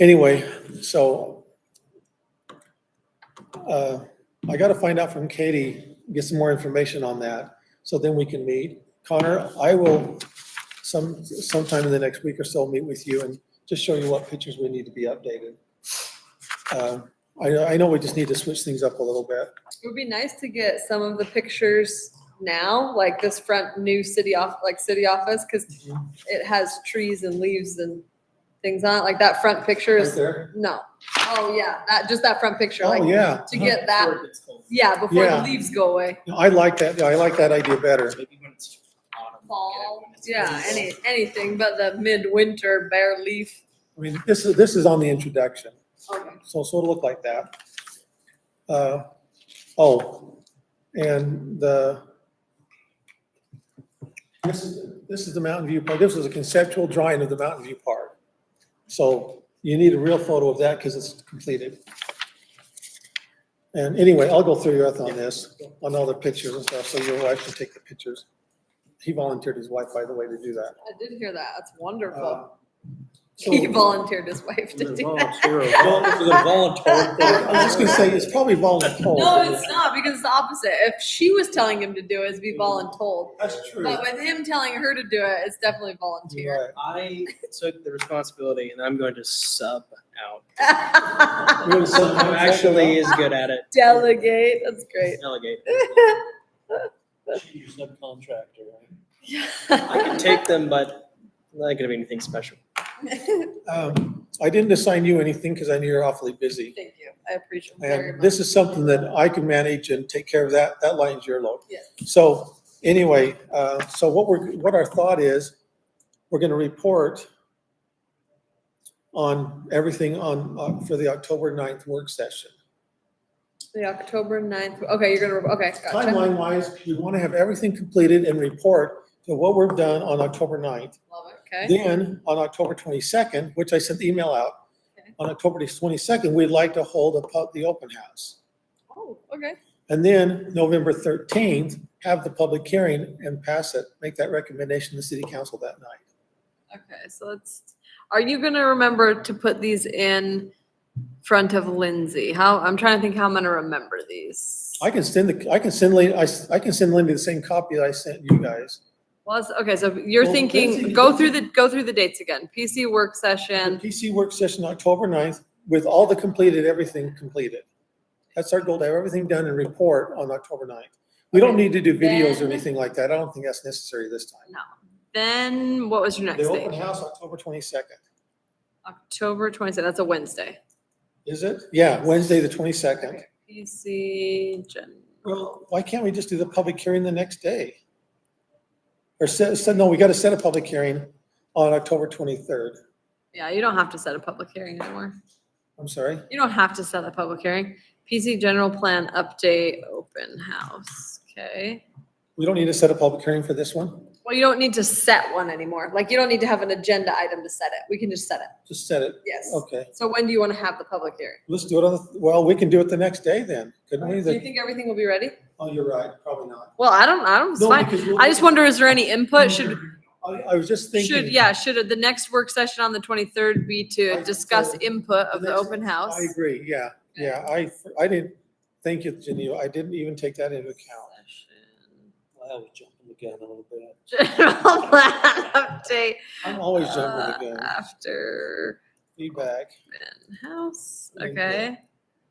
Anyway, so uh, I gotta find out from Katie, get some more information on that, so then we can meet. Connor, I will some, sometime in the next week or so, meet with you and just show you what pictures we need to be updated. Uh, I, I know we just need to switch things up a little bit. It would be nice to get some of the pictures now, like this front new city off, like city office, because it has trees and leaves and things on it. Like that front picture Right is, there? no. Oh, yeah, that, just that front picture, Oh, like yeah. to get that, Before it gets cold. yeah, before the Yeah. leaves go away. I like that, I like that idea better. Maybe when it's autumn. Fall, get it when it's yeah, cold. any, anything but the mid-winter bare leaf. I Oh, mean, this is, this is on the introduction. Okay. So, so it'll look like that. Uh, oh, and the, this is, this is the Mountain View Park, this was a conceptual drawing of the Mountain View Park. So you need a real photo of that because it's completed. And anyway, I'll go through your Earth on this, on all the pictures and stuff, so you'll actually take the pictures. He volunteered his wife, by the way, to do that. I did hear that. That's Uh, wonderful. so- He volunteered his wife to do that. Well, it was a voluntary I was just thing. gonna say, it's probably voluntold. No, it's not because it's the opposite. If she was telling him to do it, Mm-hmm. it'd be voluntold. That's true. But with him telling her to do it, it's definitely You're volunteer. right. I took the responsibility and I'm going to sub out. You want to sub Someone who contract it actually out? is good at it. Delegate. That's great. Delegate. Your subcontractor, right? I can take them, but not gonna be anything special. Thank Um, I didn't assign you anything because I knew you're awfully busy. you. I appreciate it very And much. this is something that I can manage and take care of that, that line's your load. Yes. So anyway, uh, so what we're, what our thought is, we're gonna report on everything on, uh, for the October 9th work session. The October 9th. Okay, you're gonna, okay, gotcha. Timeline wise, we want to have everything completed and report to what we've done on October 9th. Love it, Okay. Then, on October 22nd, which I sent the email out, Okay. on October 22nd, we'd like to hold a, pub- the open house. Oh, okay. And then, November 13th, have the public hearing and pass it, make that recommendation to the city council that night. Okay, so let's, are you gonna remember to put these in front of Lindsay? How, I'm trying to think how I'm gonna remember these. I can send the, I can send Lynn, I, s- I can send Lindy the same copy that I sent you guys. Well, it's- okay, so you're Well, thinking, Lindsay- go through the, go through the dates again. PC work The session. PC work session, October 9th, with all the completed, everything completed. That's our goal, to have everything done and report on October 9th. We don't Okay. need to do videos or Then- anything like that. I don't think that's necessary this time. Then what was your next The open date? house, October 22nd. October twenty-second, that's a Wednesday. Is it? Yeah, Wednesday, the twenty-second. Okay, PC gen, Well, why can't we just do the public hearing the next day? Or set, set- no, we gotta set a public hearing on October twenty-third. yeah, you don't have to set a public hearing anymore. I'm sorry. You don't have to set a public hearing. PC general plan update, open house, okay? We don't need to set a public hearing for this one. Well, you don't need to set one anymore. Like, you don't need to have an agenda item to set it. We can just set it. Just set it. Yes. Okay. So when do you want to have the public hearing? Let's do it on, the well, we can do it the next day then, couldn't we? Do you The- think everything will be ready? Oh, you're right, probably not. Well, I don't, I don't, it's No, fine. because we'll- I just wonder, is there any input? Should, I, I was just thinking. should, yeah, should the next work session on the twenty-third be to I- discuss so input of the the next- open house? I agree, yeah, yeah. I, I didn't, thank you, Geneva. I didn't even take that into account. Wow, we're jumping the gun a little bit. General plan update. I'm always uh, jumping again. After Feedback. open house, Like that. okay?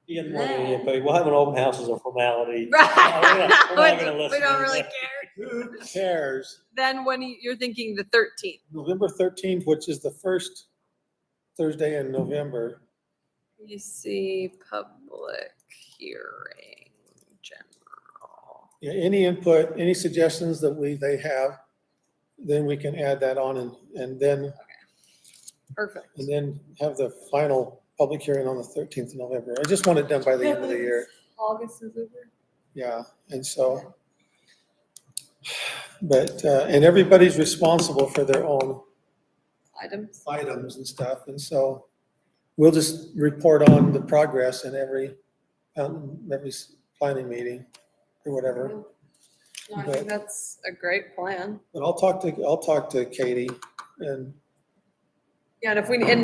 You get money, in, but we'll have an open house as a formality. not- Oh, we're not gonna Right. We listen don't to really that. care. Who cares? Then when you- you're thinking the thirteenth, November thirteenth, which is the first Thursday in November. you see public hearing general. Yeah, Any input, any suggestions that we, they have, then we can add that on and, and then, Perfect. and then have the final public hearing on the thirteenth of November. I just want it done by the end of the year. August is over. Yeah, and so. But, uh, and everybody's responsible for their own Items. items and stuff, and so we'll just report on the progress in every, um, every s- planning meeting or whatever. No, I think that's a great plan. But I'll talk to, I'll talk to Katie and Yeah, and if we, and